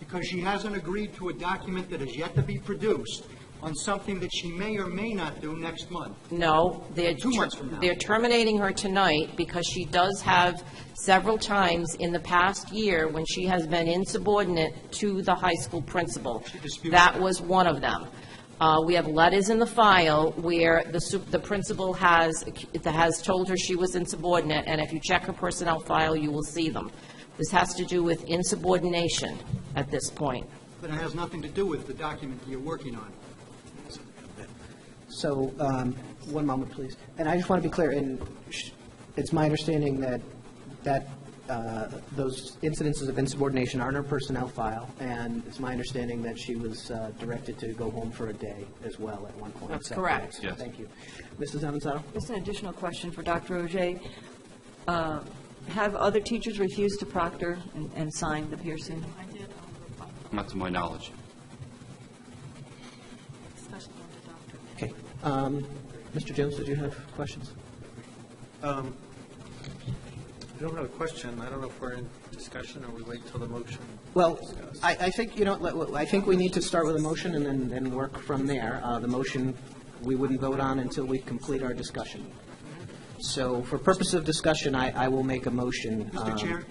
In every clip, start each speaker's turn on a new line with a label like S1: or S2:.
S1: because she hasn't agreed to a document that is yet to be produced on something that she may or may not do next month.
S2: No, they're...
S1: Two months from now.
S2: They're terminating her tonight because she does have several times in the past year when she has been insubordinate to the high school principal.
S1: disputes
S2: That was one of them. Uh, We have letters in the file where the su- the principal has, has told her she was insubordinate, and if you check her personnel file, you will see them. This has to do with insubordination at this point.
S1: But it has nothing to do with the document that you're working on.
S3: So, um, one moment, please. And I just want to be clear, and sh- it's my understanding that, that uh, those incidences of insubordination are in her personnel file, and it's my understanding that she was uh, directed to go home for a day as well at one point.
S2: That's
S3: So,
S2: correct.
S3: yes, Thank you. Mrs. Avanzado?
S4: Just an additional question for Dr. Ogier. Uh, Have other teachers refused to proctor and- and sign the piercing?
S5: Not to my knowledge.
S3: Okay. Um, Mr. Jones, did you have questions?
S6: I don't have a question. I don't know if we're in discussion or we wait till the motion.
S3: Well, I, I think, you know, let- I think we need to start with a motion and then, then work from there. Uh, the motion, we wouldn't vote on until we complete our discussion. So for purpose of discussion, I, I will make a motion.
S1: Mr.
S3: um,
S1: Chair?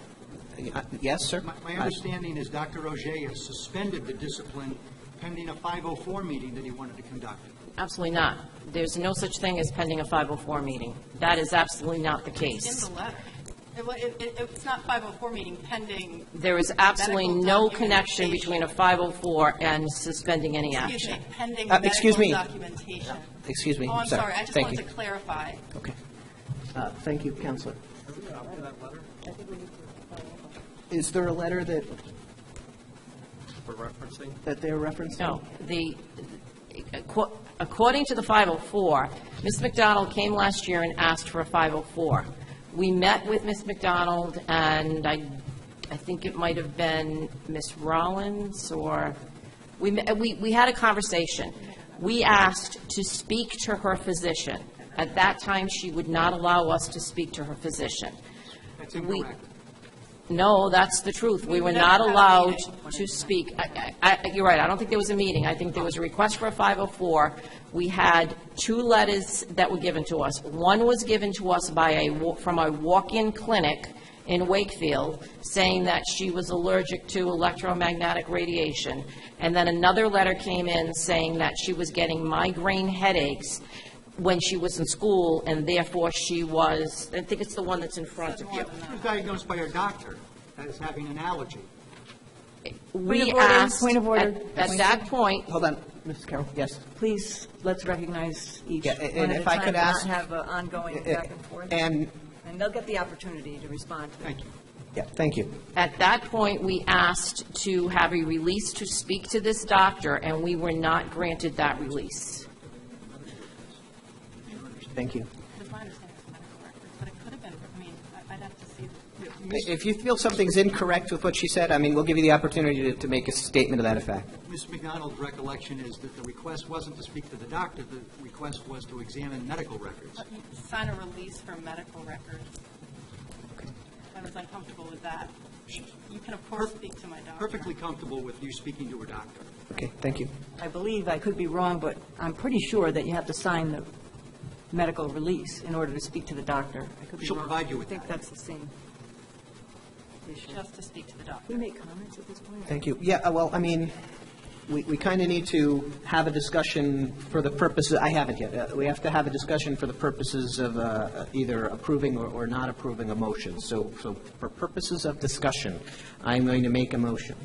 S3: uh, Yes, sir?
S1: My my understanding is Dr. Roget has suspended the discipline pending a 504 meeting that he wanted to conduct.
S2: Absolutely not. There's no such thing as pending a 504 meeting. That is absolutely not the
S7: In
S2: case.
S7: the letter. It wa- it- it- It's not 504 meeting pending,
S2: There is absolutely
S7: Medical
S2: no
S7: documentation.
S2: connection between a 504 and suspending any
S7: excuse
S2: action.
S7: me, pending
S3: Uh, excuse me.
S7: medical
S3: Uh,
S7: documentation.
S3: Excuse me.
S7: Oh, I'm sorry, I just
S3: Thank
S7: wanted to
S3: you.
S7: clarify.
S3: Okay. Uh, Thank you, Counselor. Is there a letter that,
S6: We're referencing.
S3: that they're referencing?
S2: No, the, acco- according to the 504, Ms. McDonald came last year and asked for a 504. We met with Ms. McDonald, and I, I think it might have been Ms. Rollins, or, we, me- we we had a conversation. We asked to speak to her physician. At that time, she would not allow us to speak to her physician.
S1: That's
S2: We-
S1: incorrect.
S2: No, that's the truth. We were
S7: never
S2: not
S7: had a
S2: allowed
S7: meeting.
S2: to speak. I- I- I- You're right, I don't think there was a meeting. I think there was a request for a 504. We had two letters that were given to us. One was given to us by a, wa- from a walk-in clinic in Wakefield, saying that she was allergic to electromagnetic radiation. And then another letter came in saying that she was getting migraine headaches when she was in school, and therefore she was, I think it's the one that's in front of you.
S1: She was diagnosed by her doctor as having an allergy.
S2: We
S4: Point of order,
S2: asked,
S4: point of order.
S2: at at that point,
S3: Hold on, Mrs. Carroll, yes.
S4: Please, let's recognize each
S3: Yeah,
S4: one
S3: a-
S4: at a
S3: and
S4: time,
S3: if I could
S4: not
S3: ask-
S4: have an ongoing back and forth.
S3: And,
S4: And they'll get the opportunity to respond to it.
S1: Thank you.
S3: yeah, thank you.
S2: at that point, we asked to have a release to speak to this doctor, and we were not granted that release.
S3: Thank you.
S7: It was my understanding it's medical records, but it could have been, I mean, I- I'd have to see.
S3: If you feel something's incorrect with what she said, I mean, we'll give you the opportunity to, to make a statement to that effect.
S1: Ms. McDonald's recollection is that the request wasn't to speak to the doctor, the request was to examine medical
S7: Uh,
S1: records.
S7: Sign a release for medical records. I was uncomfortable with that. You can of course speak to my doctor.
S1: Perfectly comfortable with you speaking to her doctor.
S3: Okay, thank you.
S4: I believe, I could be wrong, but I'm pretty sure that you have to sign the medical release in order to speak to the doctor. I could be
S1: She'll
S4: wrong.
S1: provide you with
S4: I think that's the same issue.
S7: Just to speak to the doctor.
S4: Can we make comments at this point?
S3: Thank you. Yeah, uh, well, I mean, we, we kind of need to have a discussion for the purposes, I haven't yet. Uh, We have to have a discussion for the purposes of uh, either approving or, or not approving a motion. So, so for purposes of discussion, I'm going to make a motion.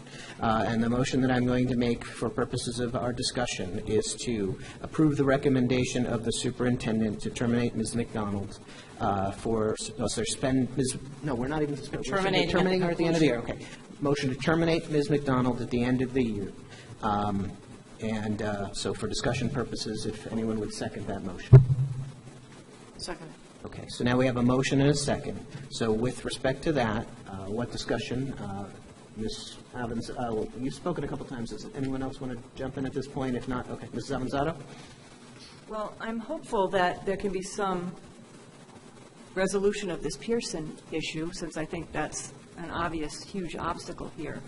S3: Uh, And the motion that I'm going to make for purposes of our discussion is to approve the recommendation of the superintendent to terminate Ms. McDonald uh, for, no, suspend, Ms., no, we're not even suspending. We're
S2: Terminating at the
S3: Terminating her at the end of the year, okay. Motion to terminate Ms. McDonald at the end of the year. Um, And uh, so for discussion purposes, if anyone would second that motion.
S2: Second.
S3: Okay, so now we have a motion and a second. So with respect to that, uh, what discussion, uh, Ms. Evans, uh, well, you've spoken a couple times, does anyone else want to jump in at this point? If not, okay, Mrs. Avanzato?
S4: Well, I'm hopeful that there can be some resolution of this Pearson issue, since I think that's an obvious huge obstacle here.